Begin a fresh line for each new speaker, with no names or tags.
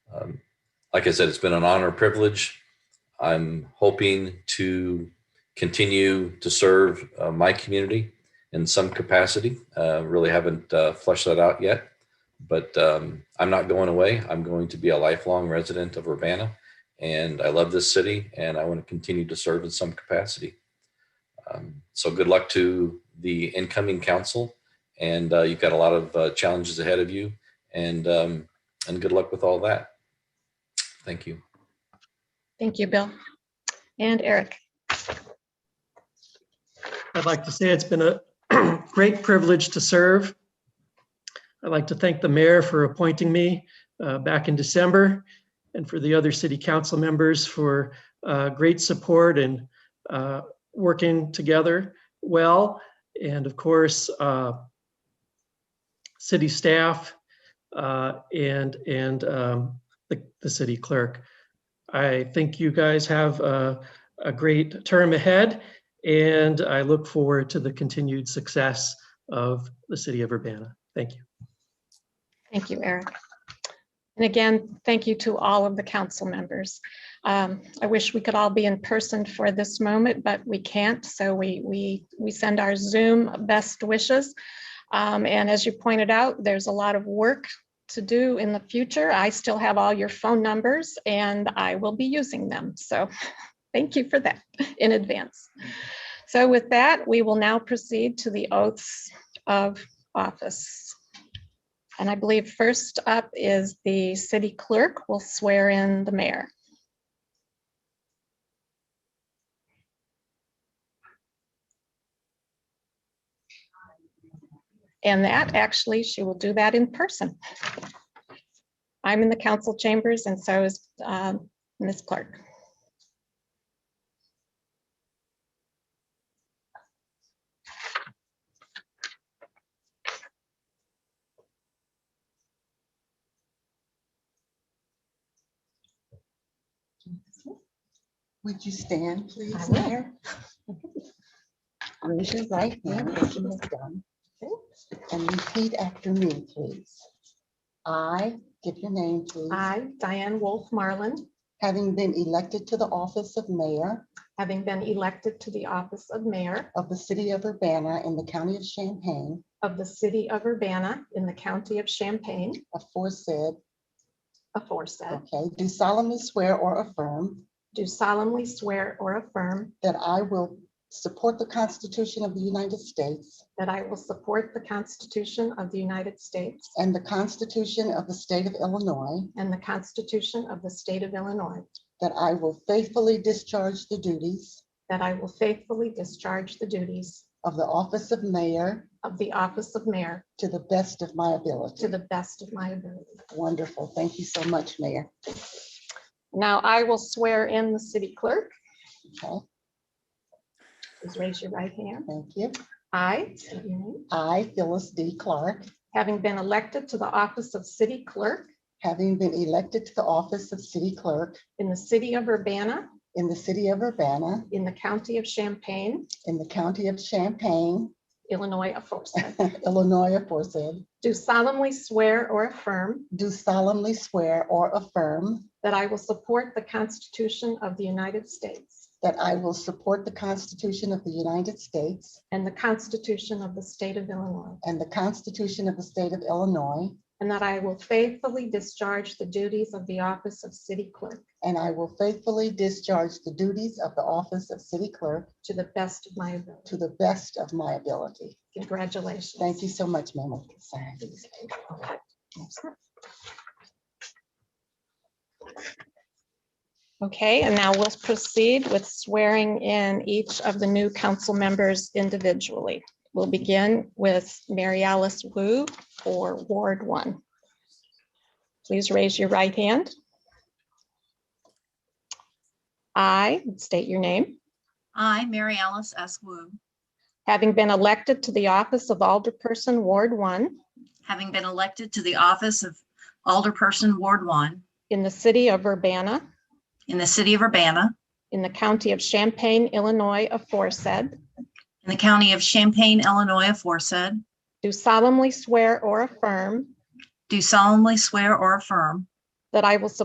Um, like I said, it's been an honor and privilege. I'm hoping to continue to serve uh, my community in some capacity. Uh, really haven't uh, fleshed that out yet, but um, I'm not going away. I'm going to be a lifelong resident of Urbana, and I love this city, and I want to continue to serve in some capacity. Um, so good luck to the incoming council, and uh, you've got a lot of uh, challenges ahead of you, and um, and good luck with all that. Thank you.
Thank you, Bill. And Eric.
I'd like to say it's been a great privilege to serve. I'd like to thank the mayor for appointing me uh, back in December and for the other city council members for uh, great support and uh, working together well. And of course, uh, city staff uh, and, and um, the, the city clerk. I think you guys have uh, a great term ahead and I look forward to the continued success of the city of Urbana. Thank you.
Thank you, Eric. And again, thank you to all of the council members. Um, I wish we could all be in person for this moment, but we can't. So we, we, we send our Zoom best wishes. Um, And as you pointed out, there's a lot of work to do in the future. I still have all your phone numbers and I will be using them. So thank you for that in advance. So with that, we will now proceed to the oaths of office. And I believe first up is the city clerk will swear in the mayor. And that, actually, she will do that in person. I'm in the council chambers and so is um, Ms. Clark.
Would you stand, please,
I will.
Mayor? Raise your right hand as you have done, and repeat after me, please. I, give your name, please.
I, Diane Wolf Marlin,
Having been elected to the office of mayor
having been elected to the office of mayor
of the city of Urbana in the county of Champaign,
of the city of Urbana in the county of Champaign,
aforesaid,
aforesaid,
okay, do solemnly swear or affirm
do solemnly swear or affirm
that I will support the Constitution of the United States
that I will support the Constitution of the United States
and the Constitution of the state of Illinois,
and the Constitution of the state of Illinois,
that I will faithfully discharge the duties
that I will faithfully discharge the duties
of the office of mayor
of the office of mayor
to the best of my ability.
to the best of my ability.
Wonderful. Thank you so much, Mayor.
Now I will swear in the city clerk.
Okay,
Please raise your right hand.
thank you.
I, state your name,
I, Phyllis D. Clark,
having been elected to the office of city clerk
having been elected to the office of city clerk
in the city of Urbana
in the city of Urbana,
in the county of Champaign,
in the county of Champaign,
Illinois aforesaid,
Illinois aforesaid,
do solemnly swear or affirm
do solemnly swear or affirm
that I will support the Constitution of the United States
that I will support the Constitution of the United States
and the Constitution of the state of Illinois,
and the Constitution of the state of Illinois,
and that I will faithfully discharge the duties of the office of city clerk
and I will faithfully discharge the duties of the office of city clerk
to the best of my ability.
to the best of my ability.
Congratulations.
Thank you so much, Mayor Wilkinson.
Okay. Okay, and now we'll proceed with swearing in each of the new council members individually. We'll begin with Mary Alice Wu for Ward One. Please raise your right hand. I state your name,
I, Mary Alice S. Wu,
having been elected to the office of Alderperson Ward One
having been elected to the office of Alderperson Ward One
in the city of Urbana
in the city of Urbana,
in the county of Champaign, Illinois aforesaid,
in the county of Champaign, Illinois aforesaid,
do solemnly swear or affirm
do solemnly swear or affirm
that I will support